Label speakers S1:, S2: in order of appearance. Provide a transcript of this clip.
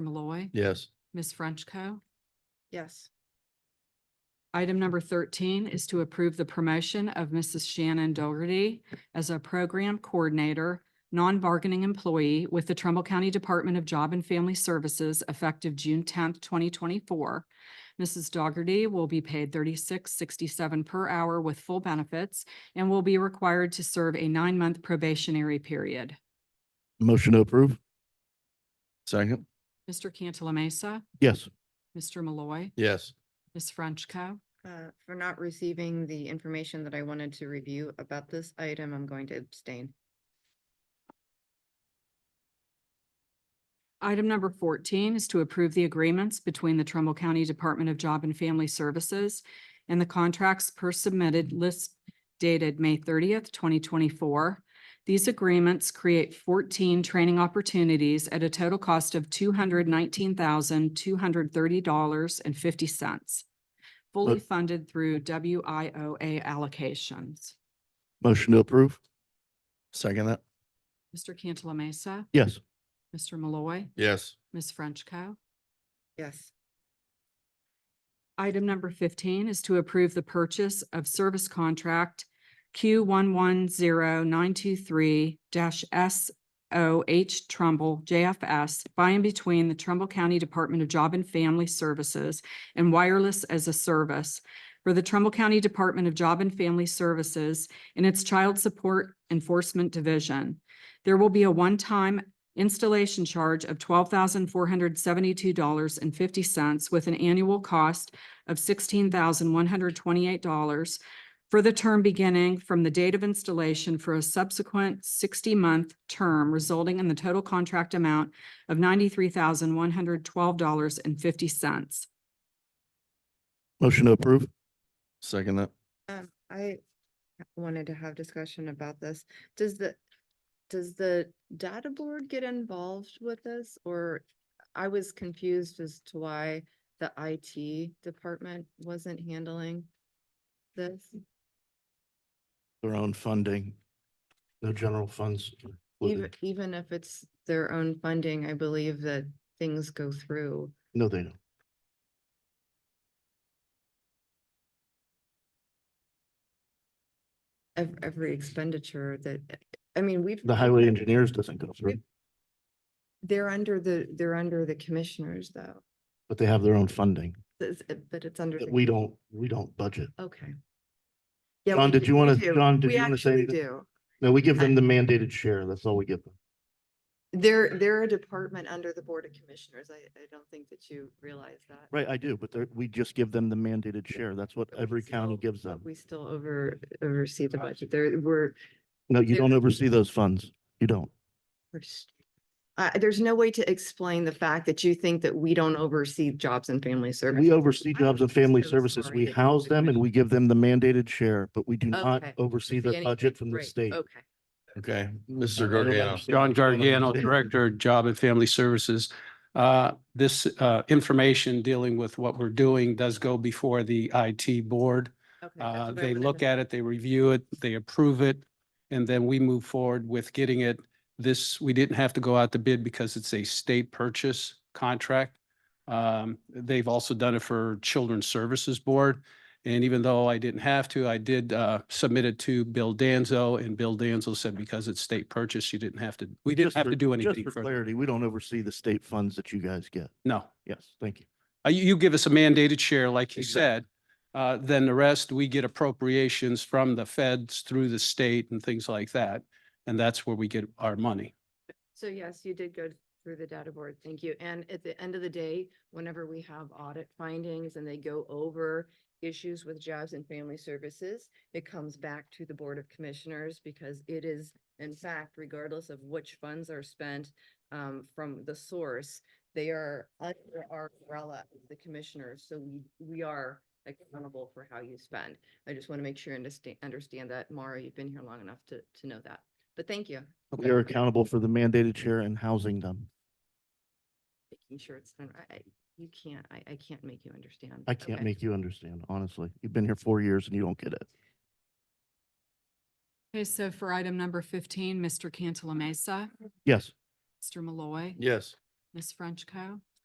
S1: Malloy,
S2: Yes.
S1: Ms. Frenchco.
S3: Yes.
S1: Item number thirteen is to approve the promotion of Mrs. Shannon Dougherty as a program coordinator, non-bargaining employee with the Trumbull County Department of Job and Family Services effective June tenth, twenty twenty-four. Mrs. Dougherty will be paid thirty-six sixty-seven per hour with full benefits and will be required to serve a nine-month probationary period.
S2: Motion to approve. Second.
S1: Mr. Cantala Mesa,
S2: Yes.
S1: Mr. Malloy,
S2: Yes.
S1: Ms. Frenchco.
S3: Uh, for not receiving the information that I wanted to review about this item, I'm going to abstain.
S1: Item number fourteen is to approve the agreements between the Trumbull County Department of Job and Family Services and the contracts per submitted list dated May thirtieth, twenty twenty-four. These agreements create fourteen training opportunities at a total cost of two hundred nineteen thousand, two hundred thirty dollars and fifty cents, fully
S2: Mo-
S1: funded through W I O A allocations.
S2: Motion to approve. Second that.
S1: Mr. Cantala Mesa,
S2: Yes.
S1: Mr. Malloy,
S2: Yes.
S1: Ms. Frenchco.
S3: Yes.
S1: Item number fifteen is to approve the purchase of service contract Q one one zero nine two three S O H Trumbull JFS by and between the Trumbull County Department of Job and Family Services and Wireless as a Service for the Trumbull County Department of Job and Family Services and its Child Support Enforcement Division. There will be a one-time installation charge of twelve thousand four hundred seventy-two dollars and fifty cents with an annual cost of sixteen thousand one hundred twenty-eight dollars for the term beginning from the date of installation for a subsequent sixty-month term resulting in the total contract amount of ninety-three thousand one hundred twelve dollars and fifty cents.
S2: Motion to approve. Second that.
S3: Um, I wanted to have discussion about this. Does the, does the data board get involved with this? Or I was confused as to why the IT department wasn't handling this.
S2: Their own funding. No general funds.
S3: Even,
S2: included.
S3: even if it's their own funding, I believe that things go through.
S2: No, they don't.
S3: ev- every expenditure that, I mean, we've.
S2: The highway engineers doesn't go through,
S3: They're under the, they're under the commissioners though,
S2: but they have their own funding
S3: It's- it- but it's under.
S2: that
S3: the-
S2: we don't, we don't budget.
S3: Okay. Yeah,
S2: John,
S3: we
S2: did
S3: do-
S2: you
S3: we
S2: wanna-
S3: do.
S2: John, did
S3: We
S2: you wanna say
S3: actually
S2: anything?
S3: do.
S2: No, we give them the mandated share. That's all we give them.
S3: They're, they're a department under the Board of Commissioners. I, I don't think that you realize that.
S2: Right, I do, but they're, we just give them the mandated share. That's what
S3: But we
S2: every county
S3: still-
S2: gives
S3: but
S2: them.
S3: We still over, oversee the budget. There, we're,
S2: No, you
S3: there-
S2: don't oversee those funds. You don't.
S3: we're s- I there's no way to explain the fact that you think that we don't oversee jobs and family services.
S2: We oversee
S3: I'm
S2: jobs and family
S3: so
S2: services.
S3: sorry
S2: We
S3: that you
S2: house
S3: took
S2: them and
S3: my-
S2: we give them the mandated share, but we do not
S3: Okay.
S2: oversee the
S3: Beginning- Oh.
S2: budget from the
S3: Right,
S2: state.
S3: Okay.
S4: Okay,
S2: I
S4: Mr.
S2: don't
S4: Gargano.
S2: understand
S5: John
S2: what's going on.
S5: Gargano, Director, of Job and Family Services. Uh, This uh, information dealing with what we're doing does go before the IT board.
S3: Okay, that's
S5: Uh,
S3: what I
S5: They
S3: wanted to
S5: look at it, they review it, they approve it, and then we move forward with getting it. This, we didn't have to go out to bid because it's a state purchase contract. Um, They've also done it for Children's Services Board. And even though I didn't have to, I did uh, submit it to Bill Danzo, and Bill Danzo said because it's state purchase, you didn't have to, we didn't
S2: Just
S5: have
S2: for-
S5: to do anything.
S2: Just for
S5: further.
S2: clarity, we don't oversee the state funds that you guys get.
S5: No.
S2: Yes, thank you.
S5: Uh, You, you give us a mandated share, like you said,
S4: Exact-
S5: uh, then the rest, we get appropriations from the feds through the state and things like that. And that's where we get our money.
S3: So yes, you did go through the data board. Thank you. And at the end of the day, whenever we have audit findings and they go over issues with jobs and family services, it comes back to the Board of Commissioners because it is, in fact, regardless of which funds are spent um, from the source, they are under our umbrella, of the commissioners. So we, we are accountable for how you spend. I just want to make sure and understand, understand that. Mara, you've been here long enough to, to know that. But thank you.
S2: We are accountable for the mandated share and housing them.
S3: making sure it's done right. I- You can't, I, I can't make you understand.
S2: I can't
S3: Okay.
S2: make you understand, honestly. You've been here four years and you don't get it.
S1: Okay, so for item number fifteen, Mr. Cantala Mesa,
S2: Yes,
S1: Mr. Malloy,
S4: Yes.
S1: Ms. Frenchco.